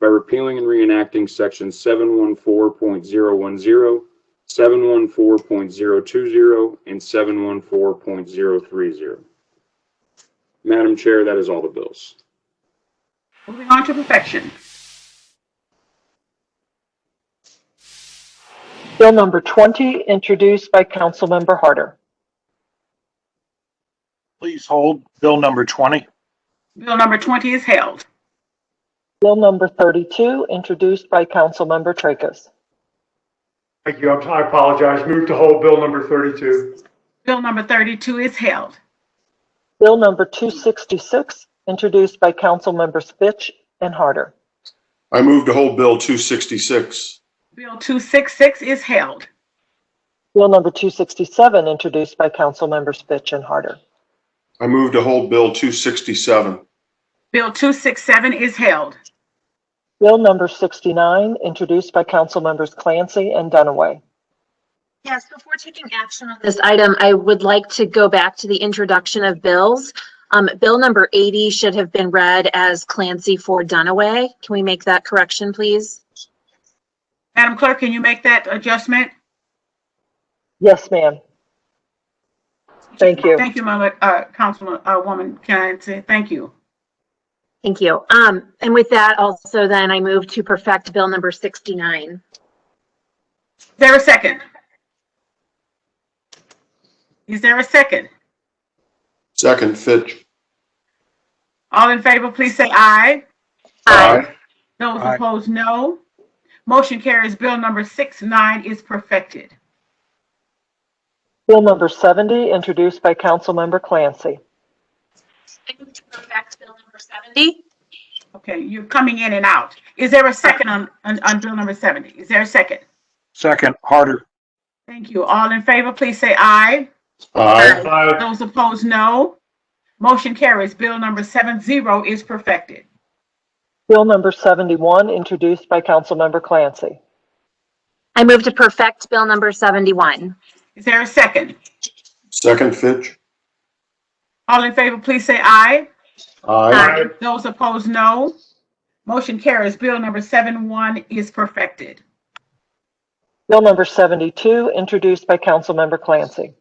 by repealing and reenacting section 714.010, 714.020, and 714.030. Madam Chair, that is all the bills. Moving on to perfection. Bill number 20, introduced by Councilmember Harder. Please hold Bill number 20. Bill number 20 is held. Bill number 32, introduced by Councilmember Tracus. Thank you. I apologize. Move to hold bill number 32. Bill number 32 is held. Bill number 266, introduced by Councilmembers Fitch and Harder. I move to hold Bill 266. Bill 266 is held. Bill number 267, introduced by Councilmembers Fitch and Harder. I move to hold Bill 267. Bill 267 is held. Bill number 69, introduced by Councilmembers Clancy and Dunaway. Yes, before taking action on this item, I would like to go back to the introduction of bills. Um, bill number eighty should have been read as Clancy for Dunaway. Can we make that correction, please? Madam Clerk, can you make that adjustment? Yes, ma'am. Thank you. Thank you, Mama, uh, Councilwoman Clancy. Thank you. Thank you. Um, and with that also then I move to perfect bill number sixty-nine. Is there a second? Is there a second? Second, Fitch. All in favor, please say aye. Aye. Those opposed, no. Motion carries. Bill number 69 is perfected. Bill number 70, introduced by Councilmember Clancy. I move to perfect bill number seventy. Okay, you're coming in and out. Is there a second on, on, on bill number 70? Is there a second? Second, Harder. Thank you. All in favor, please say aye. Aye. Aye. Those opposed, no. Motion carries. Bill number 70 is perfected. Bill number 71, introduced by Councilmember Clancy. I move to perfect bill number seventy-one. Is there a second? Second, Fitch. All in favor, please say aye. Aye. Aye. Those opposed, no. Motion carries. Bill number 71 is perfected. Bill number 72, introduced by Councilmember Clancy.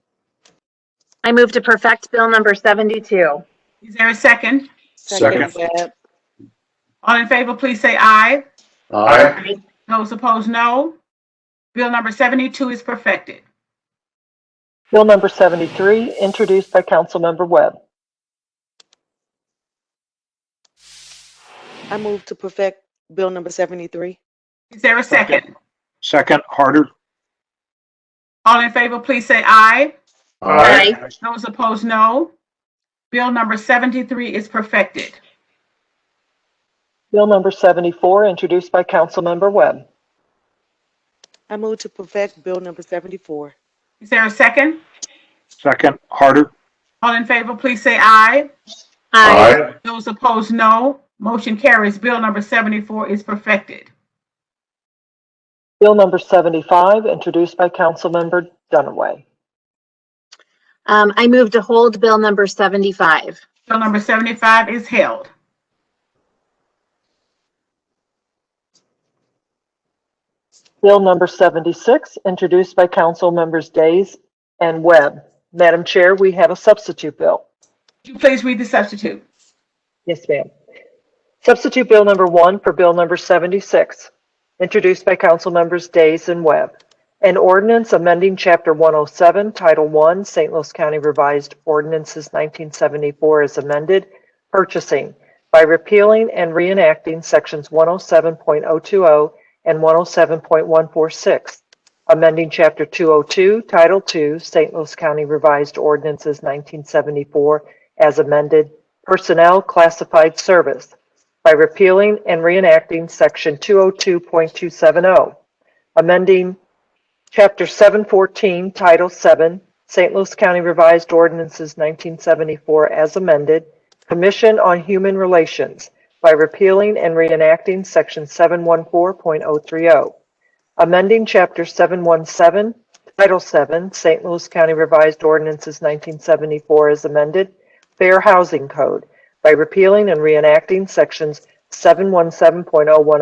I move to perfect bill number seventy-two. Is there a second? Second. All in favor, please say aye. Aye. Those opposed, no. Bill number 72 is perfected. Bill number 73, introduced by Councilmember Webb. I move to perfect Bill number 73. Is there a second? Second, Harder. All in favor, please say aye. Aye. Those opposed, no. Bill number 73 is perfected. Bill number 74, introduced by Councilmember Webb. I move to perfect Bill number 74. Is there a second? Second, Harder. All in favor, please say aye. Aye. Those opposed, no. Motion carries. Bill number 74 is perfected. Bill number 75, introduced by Councilmember Dunaway. Um, I move to hold bill number seventy-five. Bill number 75 is held. Bill number 76, introduced by Councilmembers Days and Webb. Madam Chair, we have a substitute bill. Would you please read the substitute? Yes, ma'am. Substitute Bill number 1 for Bill number 76, introduced by Councilmembers Days and Webb. An ordinance amending Chapter 107, Title 1, St. Louis County Revised Ordinances 1974 as amended, purchasing by repealing and reenacting Sections 107.020 and 107.146, amending Chapter 202, Title 2, St. Louis County Revised Ordinances 1974 as amended, Personnel Classified Service by repealing and reenacting Section 202.270, oh, amending Chapter 714, Title 7, St. Louis County Revised Ordinances 1974 as amended, Commission on Human Relations by repealing and reenacting Section 714.030, amending Chapter 717, Title 7, St. Louis County Revised Ordinances 1974 as amended, Fair Housing Code by repealing and reenacting Sections 717.010